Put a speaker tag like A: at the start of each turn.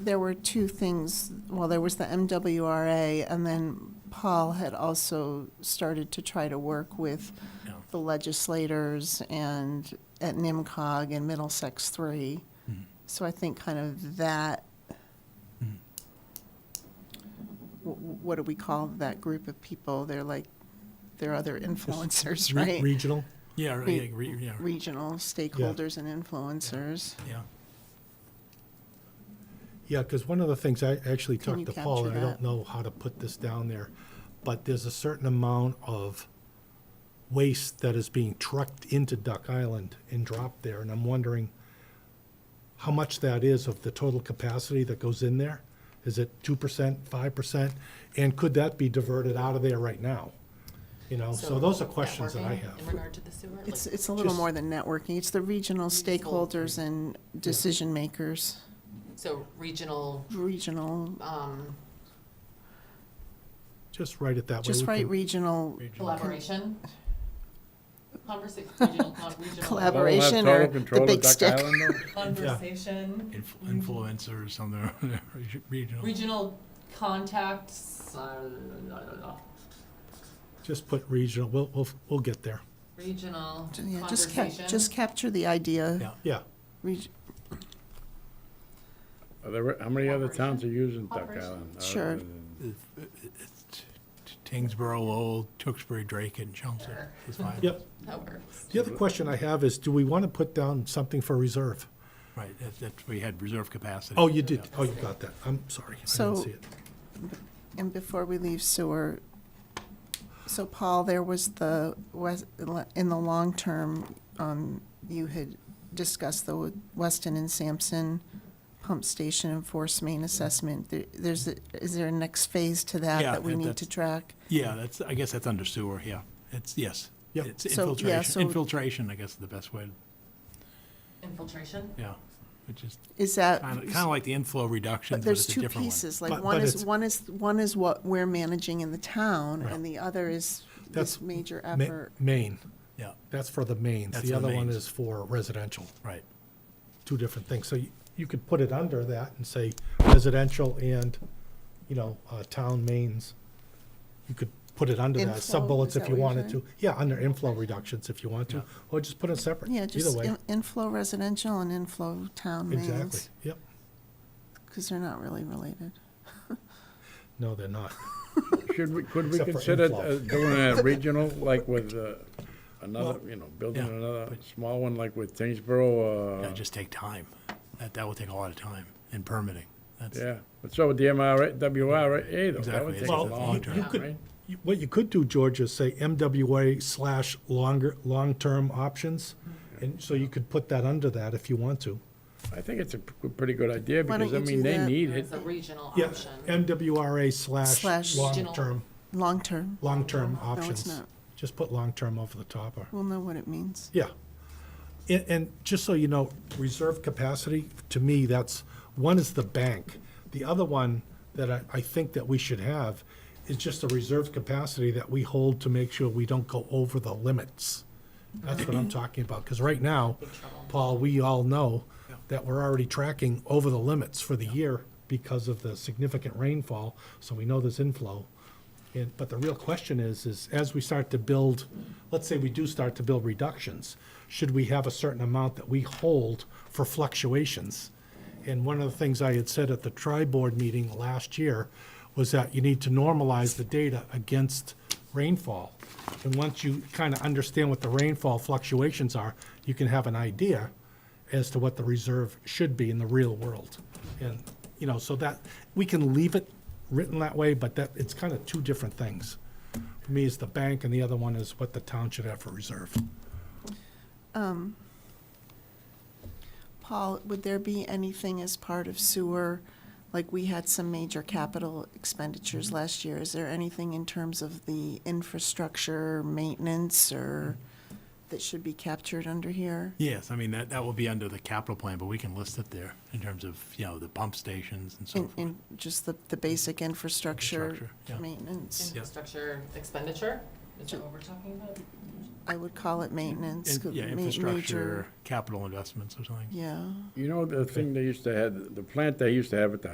A: There were two things, well, there was the MWRA, and then Paul had also started to try to work with
B: Yeah.
A: the legislators and at NIMCOG and Middlesex Three.
B: Hmm.
A: So I think kind of that,
C: Mm-hmm.
A: wh- wh- what do we call that group of people? They're like, they're other influencers,
C: Re-
A: right?
C: Regional,
B: Yeah, right,
A: Re-
B: yeah, re- yeah, re-
A: Regional stakeholders and influencers.
B: yeah.
C: yeah, because one of the things, I actually
A: Can you
C: talked to Paul,
A: capture
C: and I
A: that?
C: don't know how to put this down there, but there's a certain amount of waste that is being trucked into Duck Island and dropped there, and I'm wondering how much that is of the total capacity that goes in there? Is it two percent, five percent? And could that be diverted out of there right now? You know, so those are questions that I
D: networking
C: have.
D: In regard to the sewer? Like,
A: It's, it's a little
C: Just-
A: more than networking. It's the regional stakeholders and decision makers,
D: So regional,
A: regional,
D: um,
C: Just write it that way.
A: just
C: we
A: write
C: can-
A: regional
D: collaboration? Conversation, regional, con- regional.
A: Collabor- Collaboration or the big stick.
D: Conversation,
B: Inf- Influencer or something, re- regional.
D: regional contacts, uh, la, la, la, la.
C: Just put regional, we'll, we'll, we'll get there,
D: regional
A: Yeah, just cap,
D: conversation.
A: just capture the idea.
B: Yeah.
C: yeah.
A: Reg-
E: Are there, how many other towns are using Duck
D: Operation.
E: Island? other
A: Sure.
E: than-
B: Tingsboro, Lowell, Tewksbury, Drake, and Chelmsford. is fine.
C: Yep.
D: That works.
C: The other question I have is, do we want to put down something for reserve?
B: Right, that, that, we had reserve capacity.
C: Oh, you did, oh, you got that, I'm sorry, I
A: So-
C: didn't see it.
A: And before we leave sewer, so Paul, there was the, wes- in the long term, um, you had discussed the Weston and Sampson pump station and force main assessment. There- There's, a- is there a next phase to that
B: Yeah,
A: that we
B: and
A: need
B: that's-
A: to track?
B: Yeah, that's, I guess that's under sewer, yeah. It's, yes.
C: Yep.
B: It's
A: So, yeah, so-
B: infiltration, infiltration, I guess, is the best way,
D: Infiltration?
B: yeah. Which is
A: Is that?
B: kind of, kind of like the inflow reduction,
A: But
B: but
A: there's
B: it's a
A: two
B: different one.
A: pieces, like
C: But-
A: one
C: but
A: is,
C: it's-
A: one is, one is what we're managing in the town,
C: Right.
A: and the other is this
C: That's
A: major
C: Ma-
A: effort.
C: Maine,
B: Yeah,
C: that's for the mains,
B: That's
C: the
B: the
C: other one
B: mains.
C: is for residential,
B: right.
C: two different things. So you, you could put it under that and say residential and, you know, uh, town mains. You could put it under that,
A: Inflow, is
C: sub-bullets
A: that
C: if you
A: what you're
C: wanted
A: saying?
C: to. Yeah, under inflow reductions if you want to,
B: Yeah.
C: or just put it separate,
A: Yeah,
C: either
A: just
C: way.
A: in- inflow residential and inflow town
C: Exactly,
A: mains,
C: yep,
A: because they're not really related.
C: no, they're not.
E: Should we, could we
C: Except for
E: consider
C: inflow.
E: uh, doing a regional, like with uh, another, you know, building
B: yeah,
E: another small one like with Tingsboro?
B: That
E: uh,
B: just take time. That, that will take a lot of time and permitting. That's,
E: Yeah, but so would the MRA, WRA, though.
B: Exactly,
E: That would
B: it's
E: take a
B: just
E: long
B: long-term.
E: time,
C: You could-
E: right?
C: you- What you could do, George, is say MWA slash longer, long-term options. And so you could put that under that if you want to.
E: I think it's a p- pretty good idea,
A: Why don't
E: because, I
A: you do
E: mean, they
A: that?
E: need it.
D: It's a regional
C: Yeah,
D: option.
C: MWRA slash
A: Slash-
C: long-term,
A: Long-term,
C: long-term
A: it's
C: options.
A: not.
C: Just put long-term over the top or,
A: we'll know what it means.
C: yeah. And, and just so you know, reserve capacity, to me, that's, one is the bank. The other one that I, I think that we should have is just a reserve capacity that we hold to make sure we don't go over the limits. That's what I'm talking about, because right now, Paul, we all know that we're already tracking over the limits for the year because of the significant rainfall, so we know there's inflow. And, but the real question is, is as we start to build, let's say we do start to build reductions, should we have a certain amount that we hold for fluctuations? And one of the things I had said at the tri-board meeting last year was that you need to normalize the data against rainfall. And once you kind of understand what the rainfall fluctuations are, you can have an idea as to what the reserve should be in the real world. And, you know, so that, we can leave it written that way, but that, it's kind of two different things. For me, it's the bank, and the other one is what the town should have for reserve.
A: Paul, would there be anything as part of sewer, like we had some major capital
C: Mm-hmm.
A: expenditures last year? Is there anything in terms of the infrastructure, maintenance, or that should be captured under here?
B: Yes, I mean, that, that will be under the capital plan, but we can list it there in terms of, you know, the pump stations and so
A: In,
B: forth.
A: in just the, the basic infrastructure
B: Infrastructure, yeah.
A: maintenance.
D: Infrastructure expenditure, is that what we're talking about?
A: I would call it maintenance.
B: In-
A: 'cause
B: Yeah,
A: ma-
B: infrastructure,
A: major-
B: capital investments or something.
A: Yeah.
E: You know, the thing they used to have, the plant they used to have at the